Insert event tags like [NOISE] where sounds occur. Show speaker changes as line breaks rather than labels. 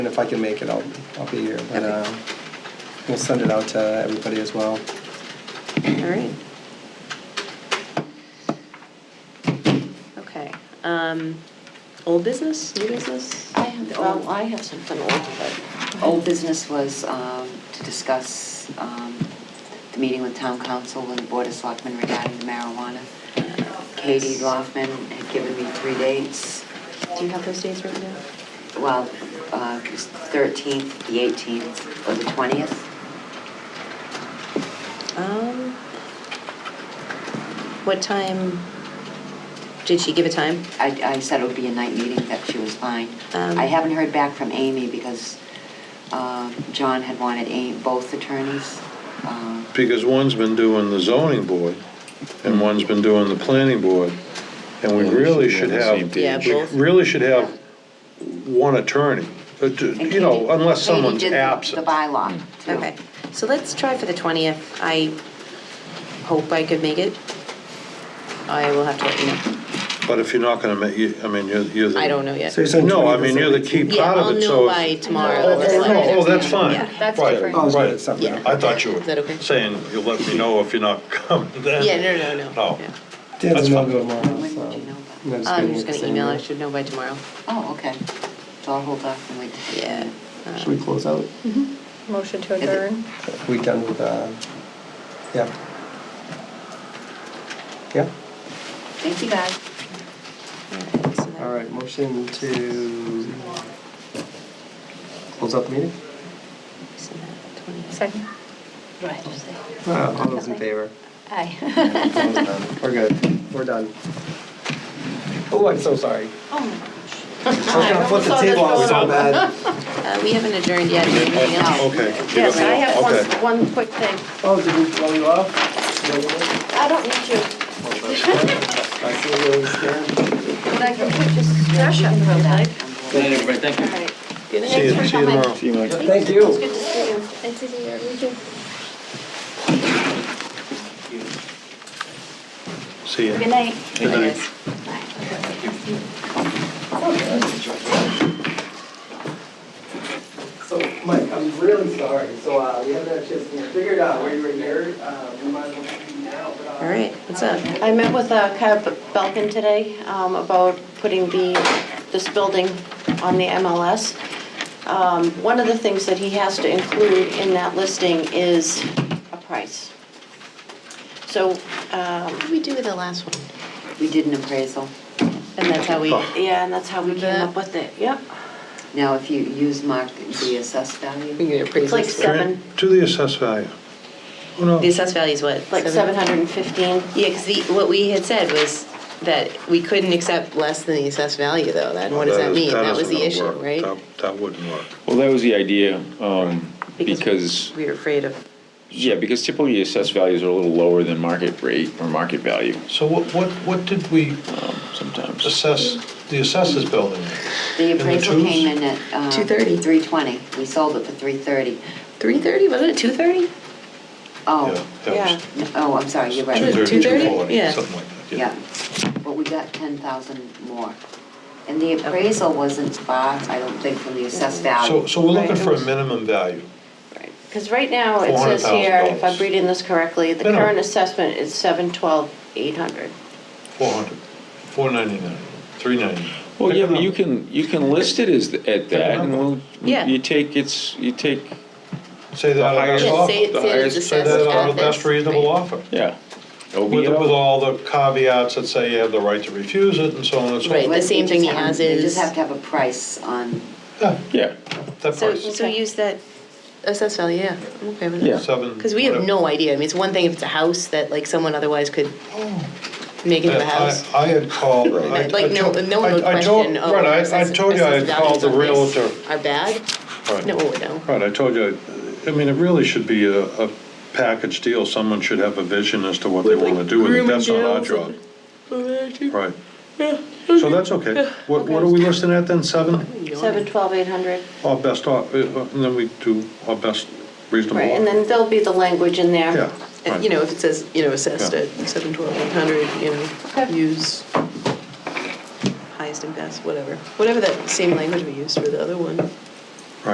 if I can make it, I'll, I'll be here, but,
Okay.
uh, we'll send it out to everybody as well.
All right. Okay, um, old business, new business?
I have,
The old-
well, I have something old, but old business was um, to discuss um, the meeting with town council and the board of selectmen regarding the marijuana. Katie Loffman had given me three dates,
Do you have those days right now?
well, uh, it was 13th, the 18th, or the 20th.
Um, what time, did she give a time?
I, I said it would be a night meeting, that she was fine.
Um,
I haven't heard back from Amy because um, John had wanted A- both attorneys. um,
Because one's been doing the zoning board, and one's been doing the planning board, and we
Well, we
really
should
should
be on the same
have,
page.
Yeah,
we
both.
really should have one attorney, uh, d-
and
you know,
Katie-
unless
Katie
someone's
did the-
absent.
The bylaw, too.
Okay, so let's try for the 20th. I hope I could make it. I will have to let you know.
But if you're not gonna make, you- I mean, you're, you're the.
I don't know yet.
So you're saying
No,
20th
I
is
mean, you're the key
18th?
Yeah,
part
I'll
of it,
know
so.
by
if-
tomorrow.
Oh,
or
oh,
Friday.
no, oh, that's fine.
Yeah.
That's
Right,
different.
Oh, it's
right.
good, it's separate.
Yeah.
I thought you
Is that okay?
were saying, you'll let me know if you're not [LAUGHS] coming then. Oh.
Yeah, no, no, no.
No.
Yeah.
Dan's
That's
in
fine.
Melbourne tomorrow,
When
so.
would you know
and I'm
I'm
gonna get
just gonna
the same
email, I
email.
should know by tomorrow.
Oh, okay. So I'll hold off and wait.
Yeah. uh,
Should we close out?
Mm-hmm. Motion to
Is it-
adjourn.
We done with, uh, yeah. Yeah,
Thank you, guys.
alright, so that-
all right, motion to close out the meeting?
so that 20th.
Second.
Right.
Uh, All those in favor?
Aye.
[LAUGHS]
Opposed? None. We're good, we're done. Oh, I'm so sorry.
Oh, my gosh.
I was gonna flip the table, I was so bad.
Uh, we haven't adjourned yet, anything else?
Okay.
Yes, I have
Okay.
one, one quick thing.
Oh, did we blow you off? No, you didn't?
I don't need you,
I see you always scared.
but I can put this trash up if you like.
Good night, everybody, thank you.
Good
See you, see you tomorrow.
See you, Mike.
Thank
It's
you.
good to see you.
Nice to see you. You too.
See you.
Good night.
Good night.
So, Mike, I'm really sorry, so, uh, we haven't had a chance to figure it out where you were here, uh, we might as well do now, but, uh.
All right, what's up?
I met with uh, Kyle Belkin today um, about putting the, this building on the MLS. Um, One of the things that he has to include in that listing is a price. So, um,
What did we do with the last one?
We did an appraisal.
And that's how we,
yeah, and that's how we came up with it, yep.
Now, if you use mark the assessed
we
value,
get
It's like
appraisals.
seven,
To the assessed value. Oh, no.
The assessed value is what?
like 715.
Yeah, because the, what we had said was that we couldn't accept less than the assessed value, though. That, what does that
is-
mean? That was
isn't
the
gonna
issue,
work.
right?
That- That wouldn't work.
Well, that was the idea, um,
Because-
because,
We were afraid of,
yeah, because typically assessed values are a little lower than market rate or market value
So what, what, what did we
um, sometimes.
assess, the assessors building?
the appraisal
twos?
came in at. uh,
230.
320. We sold it for 330.
3:30, wasn't it 2:30?
Oh,
Yeah.
n- oh, I'm sorry, you're
Two
right.
thirty. 230? Yeah.
Something like that,
Yeah,
yeah.
but we got 10,000 more. And the appraisal wasn't far, I don't think, from the assessed
So,
value.
so we're looking
Right.
for a minimum value.
Because right now, it says here, if I'm
$400,000.
reading this correctly, the
No, no.
current assessment is 712,800.
400, 499, 399.
Well, yeah, but you can, you can list it as, th- at that, and we'll,
Yeah.
you take, it's, you take,
Say that
The
out of
highest-
best
Yeah,
Yes, say it,
offer.
say it's
Highest-
Say
assessed
that out
at
of best
this,
reasonable
right.
offer.
yeah.
With,
OBO.
with all the caveats that say you have the right to refuse it and so on and so
Right.
forth.
the
But they
same thing
just
he
have-
has
They
is-
just have to have a price on,
Yeah,
Yeah,
that
So,
price,
so use that assessed value, yeah, I'm okay with
Yeah.
that.
seven.
Because we have
whatever.
no idea, I mean, it's one thing if it's a house that like someone otherwise could make into a
I-
house.
I I had called. I-
Like,
I
no,
told-
no one would
I- I told-
question, oh.
Right, I- I
assessed-
told you I had
assessed
called the
values on this
realtor.
Are bad?
Right.
No, no.
Right, I told you, I mean, it really should be a, a package deal. Someone should have a vision as to what they want to do with it. That's not our job. Right. So that's okay. What, what are we listing at then, seven?
712,800.
Our best, off- uh, and then we do our best reasonable
Right, and
offer.
then uh, there'll be the language in there.
Yeah,
And, You
right.
know, if it says, you know, assessed
Yeah.
at seven twelve eight hundred, you know,
Okay.
use highest and best, whatever. Whatever that same language we used for the other one.